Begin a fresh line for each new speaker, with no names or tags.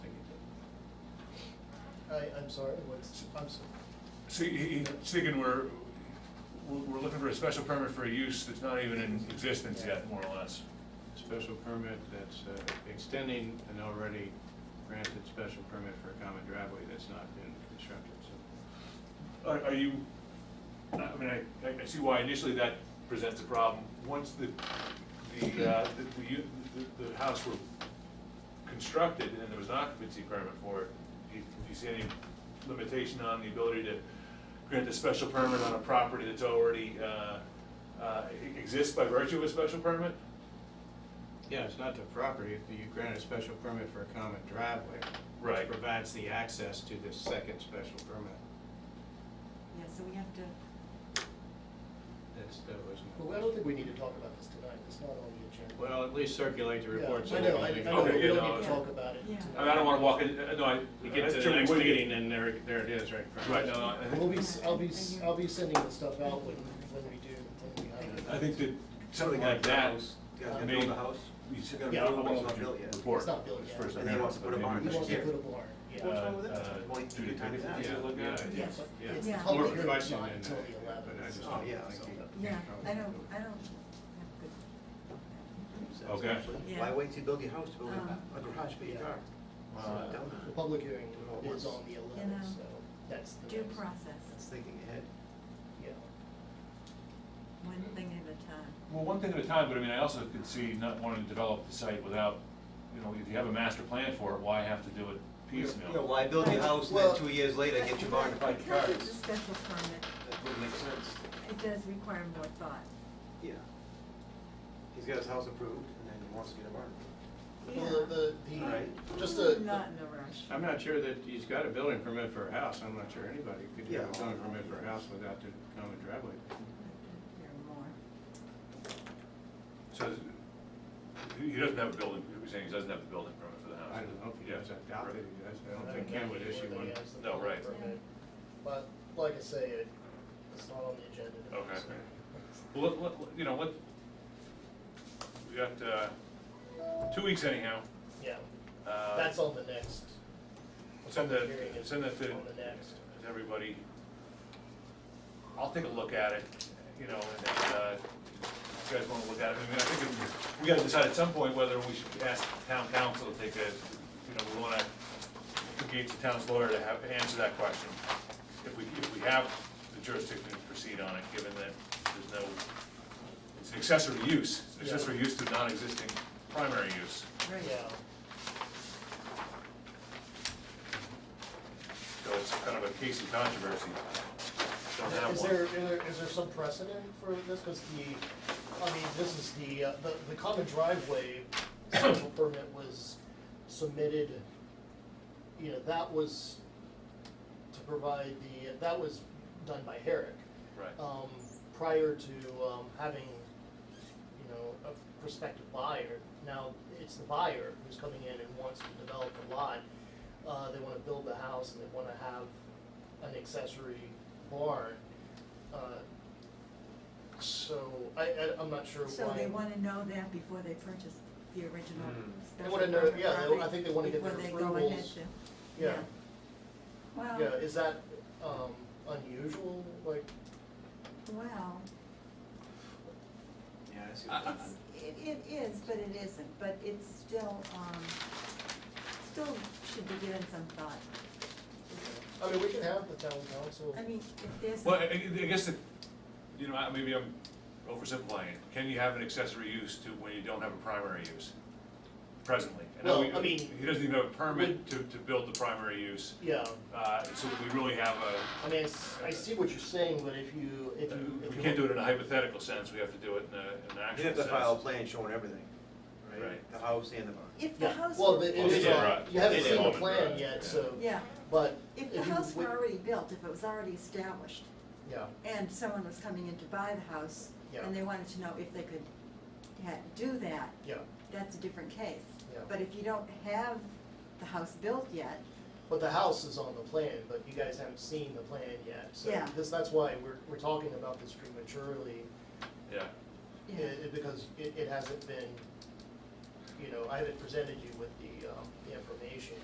I, I'm sorry, what's, I'm sorry.
So he- he's thinking we're, we're we're looking for a special permit for a use that's not even in existence yet, more or less.
Special permit that's uh, extending an already granted special permit for a common driveway that's not been constructed, so.
Are, are you, I mean, I, I- I see why initially that presents a problem. Once the, the, uh, the- the, u- the, the house were constructed and then there was an occupancy permit for it, do you, do you see any limitation on the ability to grant a special permit on a property that's already, uh, uh, e- exists by virtue of a special permit?
Yeah, it's not the property, if you grant a special permit for a common driveway.
Right.
Which provides the access to this second special permit.
Yeah, so we have to,
That's, that
Well, I don't
wasn't.
think we need to talk about this tonight, it's not on the agenda.
Well, at least circulate the
Yeah,
report. so
I know, I, I
everybody can
know,
Okay,
we
yeah,
don't
no,
need to
yeah.
talk about it
Yeah.
tonight.
I mean, I don't wanna walk in, uh, no, I.
You get to the
Sure,
next
we-
meeting and there, there it is, right? in front of
Right,
us.
no, no, I
We'll
think,
be, s- I'll be, s- I'll be sending the stuff out when, when we do, when we have it.
I think that something like that.
Yeah,
may-
build a house.
You
He's
should-
gonna
Yeah,
build, but it's
I'll
not built yet.
report.
It's not built yet.
First
And then he wants to put a barn
He
amendment.
wants to
Yeah.
put a barn, yeah.
What's wrong with that?
Uh,
Well, it's a good time to
Judy,
ask.
yeah, look at it.
Yeah.
But
Yeah.
It's
Yeah.
public
Or
hearing,
question
not
in
until
that,
the
but I
eleventh.
just
Oh,
don't
yeah,
think
okay.
you can
yeah, I
probably do
don't,
it.
I don't have good.
Okay.
Essentially. Why
Yeah.
wait to build your house, to build
Um,
a- a garage for your
Yeah.
car?
Uh,
Dumb.
The public hearing
Yeah.
is on the eleventh,
know,
so that's the.
Due
next-
That's
process,
thinking ahead.
Yeah.
one thing at a time.
Well, one thing at a time, but I mean, I also could see not wanting to develop the site without, you know, if you have a master plan for it, why have to do it
You know,
piecemeal?
why build your house, and then
Well-
two years later, get your barn and buy the
Because it's a
cars?
special permit,
That would make sense.
it does require more thought.
Yeah. He's got his house approved, and then he wants to get a barn. approved.
Yeah.
Well, the, the-
Alright.
the, just the.
I'm Not in a rush.
I'm not sure that he's got a building permit for a house, I'm not sure anybody could have a
Yeah.
building permit for a house without the common driveway.
There are more.
So, he doesn't have a building, you're saying he doesn't have a building permit for the house?
I don't know if he
Yeah.
does, I doubt that he does, I don't think
know
Ken would
whether
issue
he
one.
has the
No, right.
permit. But, like I say, it, it's not on the agenda. tonight,
Okay.
so.
Well, let- let, let- you know, what, we got, uh, two weeks anyhow.
Yeah,
Uh,
that's on the next,
Send that,
Hearing is
send that to,
on the next.
to everybody. I'll take a look at it, you know, and, then, uh, if you guys wanna look at it, I mean, I think it- we gotta decide at some point whether we should ask town council to take a, you know, we wanna engage the town's lawyer to have, answer that question. If we, if we have the jurisdiction to proceed on it, given that there's no, it's an accessory use, it's an accessory use to non-existing primary use.
Right.
yeah,
So it's kind of a case of controversy. Don't have
is
one.
there, is there- is there some precedent for this, cause the, I mean, this is the, uh, the, the common driveway special permit was submitted, you know, that was to provide the, that was done by Herrick.
Right.
um, prior to, um, having, you know, a prospective buyer. Now, it's the buyer who's coming in and wants to develop the lot. Uh, they wanna build the house and they wanna have an accessory barn. Uh, So, I, I, I'm not sure why.
So they wanna know that before they purchase the original
Mm.
special
They wanna know-
permit
yeah, they- I
property,
think they wanna get their
Before they go ahead
approvals.
to,
Yeah,
yeah. Well.
yeah, is that, um, unusual, like,
Well,
Yeah, I see. what you're
Uh, it's, it, it is, but it isn't, but it's still, um, still should be given some thought.
I mean, we can have the town council.
I mean, if there's.
Well, I, I guess that, you know, I- maybe I'm oversimplifying it. Can you have an accessory use to when you don't have a primary use presently? know
Well,
we-
I mean-
He doesn't even have a permit to, to build the primary use,
Yeah,
uh, so we really have a, uh,
I mean, I s- I see what you're saying, but if you, if you. if
we
you-
can't do it in a hypothetical sense, we have to do it in a, in an
saying.
actual
You have
sense.
to file a plan showing everything, right?
Right.
The house and the barn.
If the
Yeah,
house
well,
were.
it
Well,
is,
they did,
uh,
right.
you haven't
They
seen the
did.
plan
Right,
yet,
yeah.
so,
Yeah,
but.
if the
you
house were
would-
already built, if it was already established,
Yeah,
and someone was coming in to buy the house,
Yeah.
and they wanted to know if they could ha- do that,
yeah,
that's a different case.
Yeah.
But if you don't have the house built yet,
but the house is on the plan, but you guys haven't seen the plan yet, so
Yeah.
this, that's why we're, we're talking about this prematurely.
Yeah,
you
i-
know,
i- Because it, it hasn't been, you know, I haven't presented you with the, um, the information